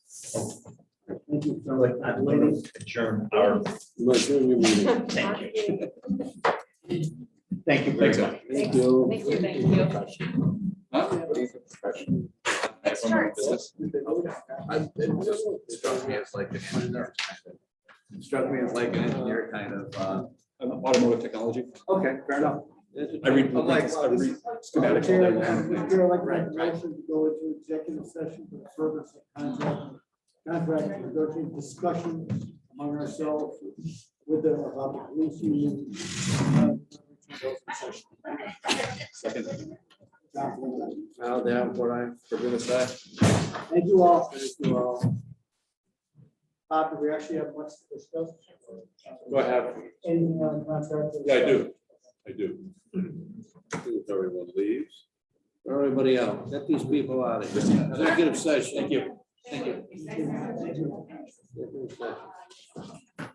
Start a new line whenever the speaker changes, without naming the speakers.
Thank you for like, I'm waiting.
adjourn our, thank you. Thank you very
Thanks,
much.
Thank you.
Thank you, thank you.
Next
starts.
I, it just struck me as like an engineer. kind of- Struck me as like an engineer kind of, uh,
Automotive technology.
Okay, fair enough.
I read
I'm like,
blueprints, I
wow, this
read
is-
schematics all day long.
Chair, I'd like to make a
Right, right.
motion to go into executive session for the purpose of contract, contract negotiating discussion among ourselves with the, about the police union.
Second.
Now that what I'm, we're gonna say.
Thank you all. Thank you all. Bob, do we actually have much to discuss?
Do I have,
Anything on contract?
yeah, I do, I do. If Everyone leaves.
Everybody out, get these people out of here. Executive session.
Thank you.
Thank you.
Executive session.